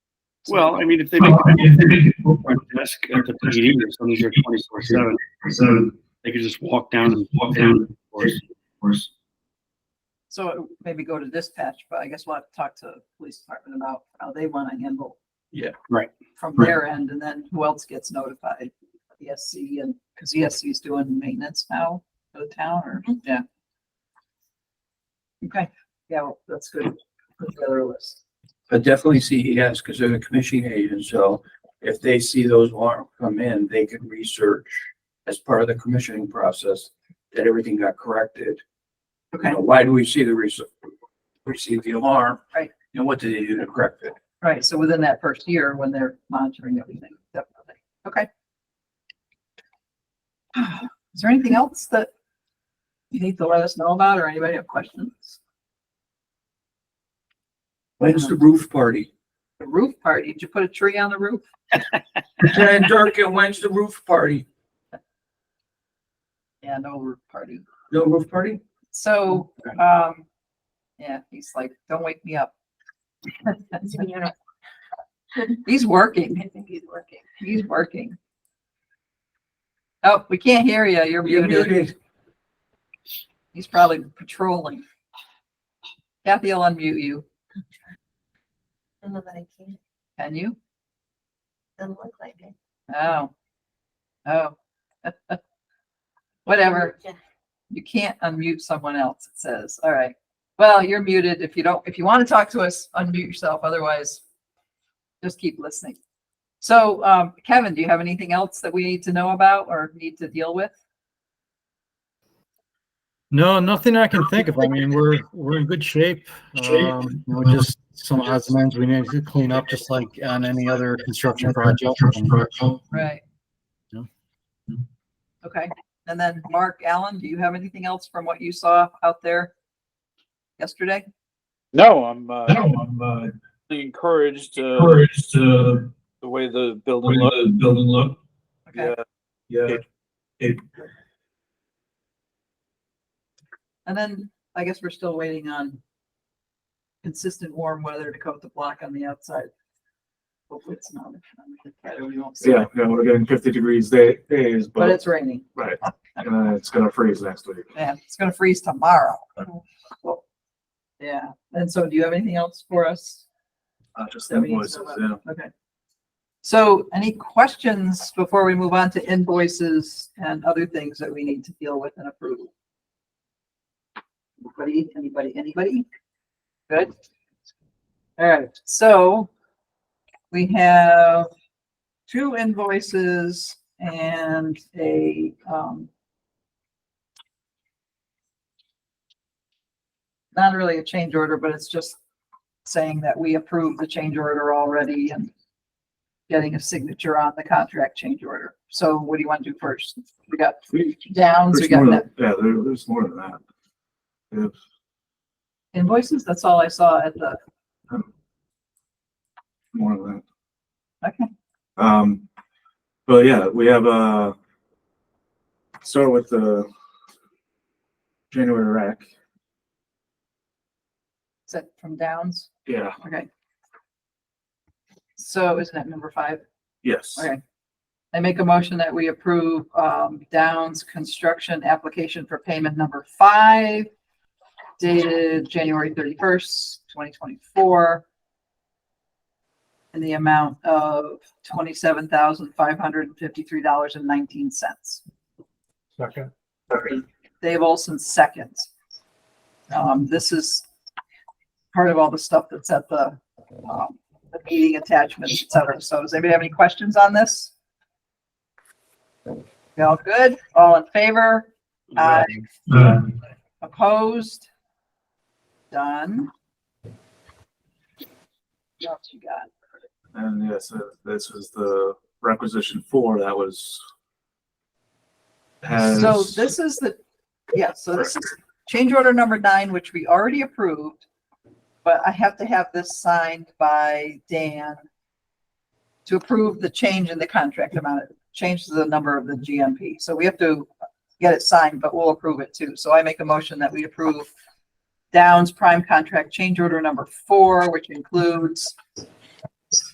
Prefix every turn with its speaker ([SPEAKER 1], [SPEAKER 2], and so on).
[SPEAKER 1] Well, I mean, if they make a desk at the PD or something, you're twenty-four seven,
[SPEAKER 2] So,
[SPEAKER 1] they could just walk down and walk down. or-
[SPEAKER 3] So it would maybe go to dispatch, but I guess we'll have to talk to the police department about how they want to handle.
[SPEAKER 4] Yeah,
[SPEAKER 1] right.
[SPEAKER 3] From their end, and then who else gets notified? ESC and, because ESC is doing maintenance now for the town or, yeah. Okay, yeah, well, that's good. Put together a list.
[SPEAKER 4] But definitely CES, because they're the commissioning agent, so if they see those warrant come in, they can research as part of the commissioning process that everything got corrected. You
[SPEAKER 3] Okay,
[SPEAKER 4] know, why do we see the res- receive the alarm?
[SPEAKER 3] Right.
[SPEAKER 4] And what did they do to correct it?
[SPEAKER 3] right. So within that first year, when they're monitoring everything, definitely. Okay. Is there anything else that you need to let us know about or anybody have questions?
[SPEAKER 4] When's the roof party?
[SPEAKER 3] The roof party, did you put a tree on the roof?
[SPEAKER 4] Lieutenant Durkin, when's the roof party?
[SPEAKER 3] Yeah, no roof party.
[SPEAKER 4] No roof party?
[SPEAKER 3] So, um, yeah, he's like, don't wake me up. He's working,
[SPEAKER 5] I think he's working.
[SPEAKER 3] he's working. Oh, we can't hear you, you're
[SPEAKER 4] You're
[SPEAKER 3] muted.
[SPEAKER 4] muted.
[SPEAKER 3] He's probably patrolling. Kathy will unmute you.
[SPEAKER 5] Don't know that I can.
[SPEAKER 3] Can you?
[SPEAKER 5] Doesn't look like it.
[SPEAKER 3] Oh. Oh. Whatever.
[SPEAKER 5] Yeah.
[SPEAKER 3] You can't unmute someone else, it says. All right. Well, you're muted. If you don't, if you want to talk to us, unmute yourself. Otherwise, just keep listening. So, um, Kevin, do you have anything else that we need to know about or need to deal with?
[SPEAKER 6] No, nothing I can think of. I mean, we're, we're in good shape. Um, you know, just some odds and ends we need to clean up, just like on any other construction project.
[SPEAKER 3] Right.
[SPEAKER 6] No.
[SPEAKER 3] Okay. And then Mark Allen, do you have anything else from what you saw out there yesterday?
[SPEAKER 7] No, I'm, uh,
[SPEAKER 2] I'm, uh,
[SPEAKER 7] encouraged, uh,
[SPEAKER 2] encouraged to,
[SPEAKER 7] the way the building
[SPEAKER 2] build and
[SPEAKER 7] looks.
[SPEAKER 2] look,
[SPEAKER 3] Okay.
[SPEAKER 7] Yeah,
[SPEAKER 2] yeah. It,
[SPEAKER 3] And then I guess we're still waiting on consistent warm weather to coat the block on the outside. Hopefully it's not. better, we won't see.
[SPEAKER 8] Yeah, yeah, we're getting fifty degrees day, days,
[SPEAKER 3] But
[SPEAKER 8] but,
[SPEAKER 3] it's raining.
[SPEAKER 8] right, and then it's gonna freeze next week.
[SPEAKER 3] Yeah, it's gonna freeze tomorrow. Yeah, and so do you have anything else for us?
[SPEAKER 8] Uh, just
[SPEAKER 3] that we need to know
[SPEAKER 8] invoices,
[SPEAKER 3] about?
[SPEAKER 8] yeah.
[SPEAKER 3] Okay. So any questions before we move on to invoices and other things that we need to deal with and approve? Anybody, anybody, anybody? Good. All right, so we have two invoices and a, um, not really a change order, but it's just saying that we approve the change order already and getting a signature on the contract change order. So what do you want to do first? We got
[SPEAKER 8] We-
[SPEAKER 3] Downs, we
[SPEAKER 8] There's
[SPEAKER 3] got
[SPEAKER 8] more
[SPEAKER 3] that
[SPEAKER 8] than, yeah, there, there's more than that. If,
[SPEAKER 3] invoices. That's all I saw at the,
[SPEAKER 8] more than
[SPEAKER 3] okay,
[SPEAKER 8] that. Um, but yeah, we have, uh, start with the January rack.
[SPEAKER 3] is that from Downs?
[SPEAKER 8] Yeah,
[SPEAKER 3] Okay. So isn't that number five?
[SPEAKER 8] yes.
[SPEAKER 3] Okay. I make a motion that we approve um, Downs Construction application for payment number five dated January thirty-first, twenty twenty-four in the amount of twenty-seven thousand, five hundred and fifty-three dollars and nineteen cents.
[SPEAKER 2] second,
[SPEAKER 3] Dave Olson seconds. Um, this is part of all the stuff that's at the, um, the meeting attachments, et cetera. So does anybody have any questions on this? You all good? All in favor? Aye.
[SPEAKER 2] uh,
[SPEAKER 3] Opposed? Done. What else you got?
[SPEAKER 8] And yes, uh, this is the requisition four that was.
[SPEAKER 3] So
[SPEAKER 8] Has,
[SPEAKER 3] this is the, yeah, so this is change order number nine, which we already approved. But I have to have this signed by Dan to approve the change in the contract amount, change to the number of the GMP. So we have to get it signed, but we'll approve it too. So I make a motion that we approve Downs Prime Contract Change Order Number Four, which includes